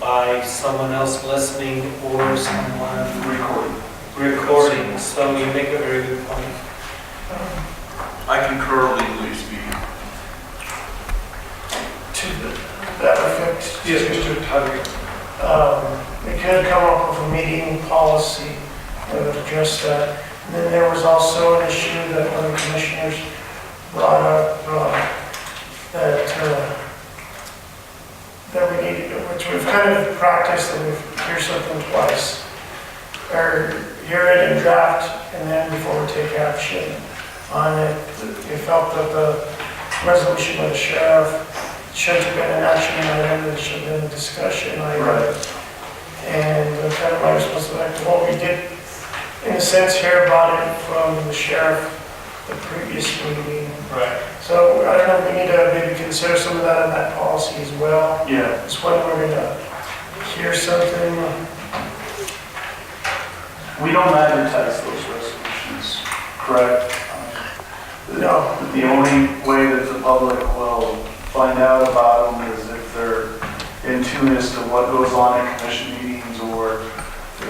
by someone else listening or someone recording, so you make a very good point. I concur legally speaking. to that effect. Yes, Mr. Tadeo. Um, They could come up with a meeting policy that would address that. And then there was also an issue that one of the commissioners brought up, uh, that, uh, that we needed, which we've kind of practiced, that we hear something twice, or hear it in draft, and then before we take action on it. They felt that the resolution by the sheriff should have been an action item, it should have been a discussion item. And the kind of my responsibility, well, we did, in a sense, hear about it from the sheriff the previous meeting. Right. So I don't know, we need to maybe consider some of that in that policy as well. Yeah. It's when we're gonna hear something, We don't advertise those resolutions, correct? no, The only way that the public will find out about them is if they're in tune as to what goes on in commission meetings or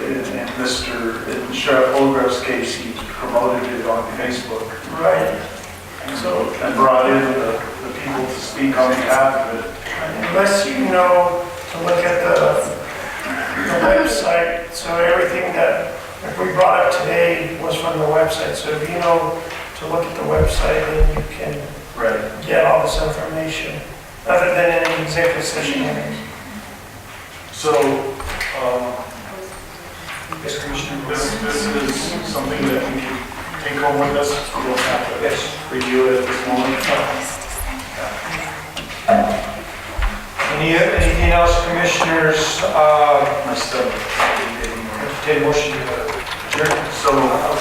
in in Mr. in Sheriff Holgrave's case, he promoted it on Facebook. right, So, and brought in the, the people to speak on behalf of it. unless you know to look at the, the website, so everything that, if we brought up today was from the website, so if you know to look at the website, then you can Right. get all this information, other than in an executive session. So, um, Yes, Commissioner. this, this is something that we can take home with us. We don't have to Yes. review it at this moment. Any, anything else, Commissioners? Uh, My stomach. entertain motion to adjourn. So,